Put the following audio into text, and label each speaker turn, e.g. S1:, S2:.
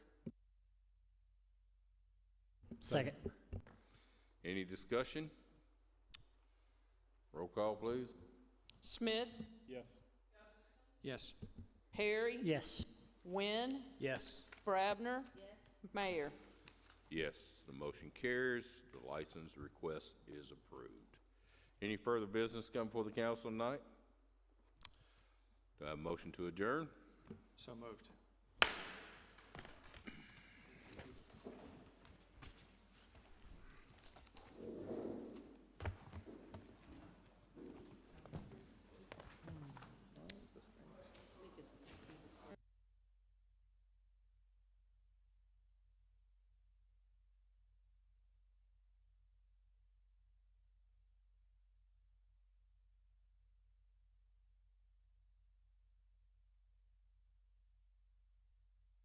S1: Second.
S2: Any discussion? Roll call, please.
S3: Smith,
S4: Yes.
S5: Yes.
S3: Perry.
S1: Yes.
S3: Wynn,
S5: Yes.
S3: Brabner. Mayor.
S2: Yes, the motion carries. The license request is approved. Any further business come before the council tonight? Do I have a motion to adjourn?
S5: So moved.